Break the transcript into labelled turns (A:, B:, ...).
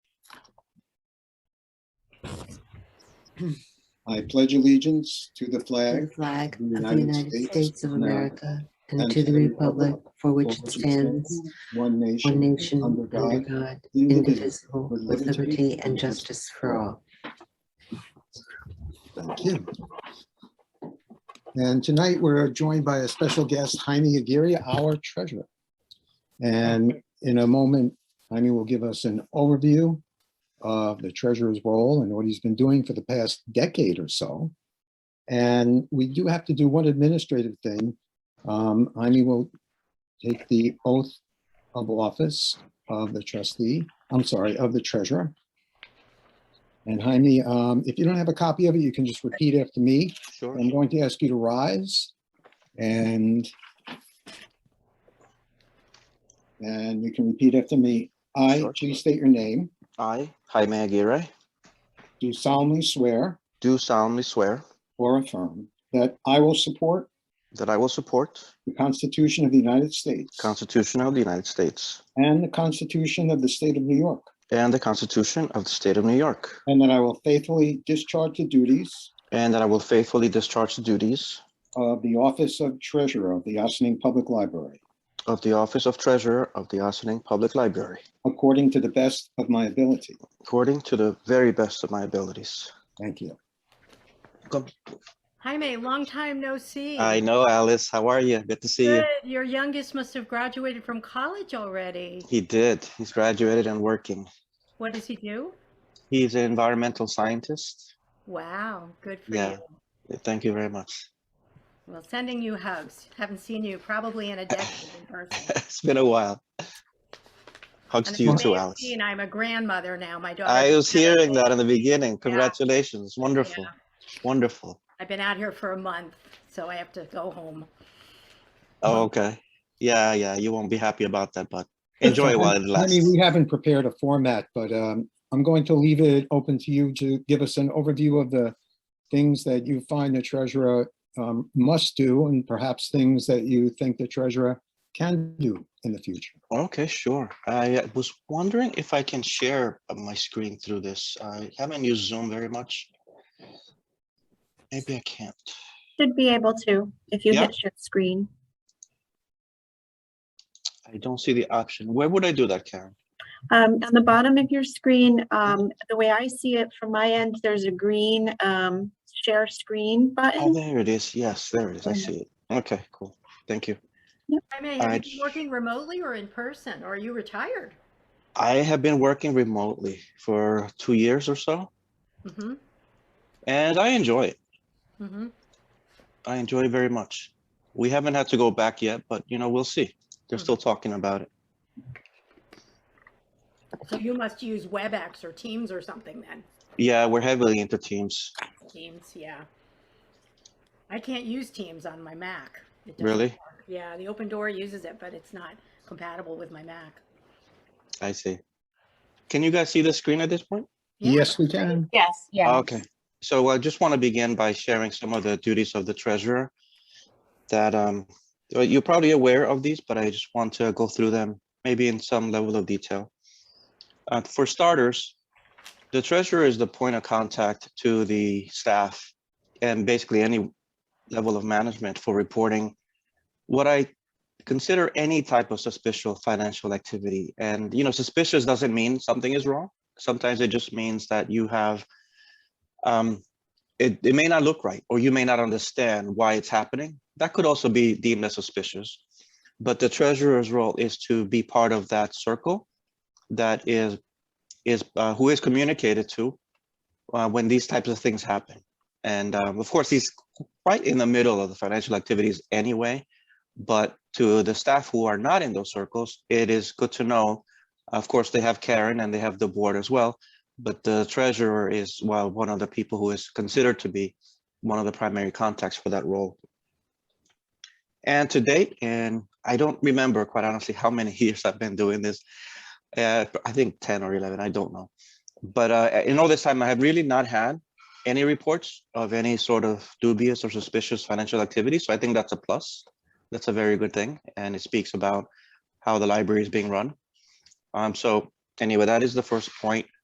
A: I pledge allegiance to the
B: to
A: flag
B: the flag of the United States of America and to the republic for which it stands,
A: one
B: one
A: nation,
B: nation,
A: under
B: under
A: God,
B: God,
A: indivisible.
B: indivisible, with liberty and justice for all.
A: Thank you. And tonight, we're joined by a special guest, Jaime Aguirre, our treasurer. And in a moment, Jaime will give us an overview of the treasurer's role and what he's been doing for the past decade or so. And we do have to do one administrative thing. Um, Jaime will take the oath of office of the trustee, I'm sorry, of the treasurer. And Jaime, um, if you don't have a copy of it, you can just repeat after me.
C: Sure.
A: I'm going to ask you to rise and and you can repeat after me. I,
C: Sure.
A: please state your name,
C: I, Jaime Aguirre,
A: do solemnly swear
C: do solemnly swear
A: or affirm that I will support
C: that I will support
A: the Constitution of the United States
C: the Constitution of the United States
A: and the Constitution of the State of New York,
C: and the Constitution of the State of New York,
A: and that I will faithfully discharge the duties
C: and that I will faithfully discharge the duties
A: of the Office of Treasurer of the Ossining Public Library
C: of the Office of Treasurer of the Ossining Public Library
A: according to the best of my ability.
C: according to the very best of my abilities.
A: Thank you.
D: Jaime, long time no see.
C: I know, Alice. How are you? Good to see you.
D: Good. Your youngest must have graduated from college already.
C: He did. He's graduated and working.
D: What does he do?
C: He's an environmental scientist.
D: Wow, good for
C: Yeah.
D: you.
C: Thank you very much.
D: Well, sending you hugs. Haven't seen you probably in a decade in person.
C: It's been a while. Hugs
D: And
C: to you
D: as you
C: too,
D: may have
C: Alice.
D: seen, I'm a grandmother now. My daughter.
C: I was hearing that in the beginning. Congratulations. Wonderful.
D: Yeah.
C: Wonderful.
D: I've been out here for a month, so I have to go home.
C: Oh, okay. Yeah, yeah. You won't be happy about that, but enjoy it while it
A: I mean,
C: lasts.
A: we haven't prepared a format, but um, I'm going to leave it open to you to give us an overview of the things that you find the treasurer um, must do and perhaps things that you think the treasurer can do in the future.
C: Okay, sure. I uh, was wondering if I can share uh, my screen through this. I haven't used Zoom very much. Maybe I can't.
E: Should be able to, if you
C: Yeah.
E: hit share screen.
C: I don't see the option. Where would I do that, Karen?
E: Um, on the bottom of your screen, um, the way I see it from my end, there's a green, um, share screen
C: Oh,
E: button.
C: there it is. Yes, there it is. I
E: Yeah.
C: see it. Okay, cool. Thank you.
D: Jaime, have
C: I-
D: you been working remotely or in person, or are you retired?
C: I have been working remotely for two years or so,
D: Mm-hmm.
C: and I enjoy it.
D: Mm-hmm.
C: I enjoy it very much. We haven't had to go back yet, but you know, we'll see. They're
D: Hmm.
C: still talking about it.
D: So you must use WebEx or Teams or something then.
C: Yeah, we're heavily into Teams.
D: Teams, yeah. I can't use Teams on my Mac. It doesn't
C: Really?
D: work. Yeah, the open door uses it, but it's not compatible with my Mac.
C: I see. Can you guys see the screen at this point?
D: Yeah.
A: Yes, we can.
F: Yes, yeah.
C: Okay. So I just want to begin by sharing some of the duties of the treasurer that um, uh, you're probably aware of these, but I just want to go through them maybe in some level of detail. Uh, for starters, the treasurer is the point of contact to the staff and basically any level of management for reporting what I consider any type of suspicious financial activity. And, you know, suspicious doesn't mean something is wrong. Sometimes it just means that you have um, it, it may not look right, or you may not understand why it's happening. That could also be deemed as suspicious. But the treasurer's role is to be part of that circle that is, is uh, who is communicated to uh, when these types of things happen. And um, of course, he's right in the middle of the financial activities anyway. But to the staff who are not in those circles, it is good to know. Of course, they have Karen and they have the board as well but the treasurer is well one of the people who is considered to be one of the primary contacts for that role. And to date, and I don't remember quite honestly how many years I've been doing this. Uh, I think ten or eleven. I don't know. But uh, in all this time, I have really not had any reports of any sort of dubious or suspicious financial activity. So I think that's a plus. That's a very good thing, and it speaks about how the library is being run. Um, so anyway, that is the first point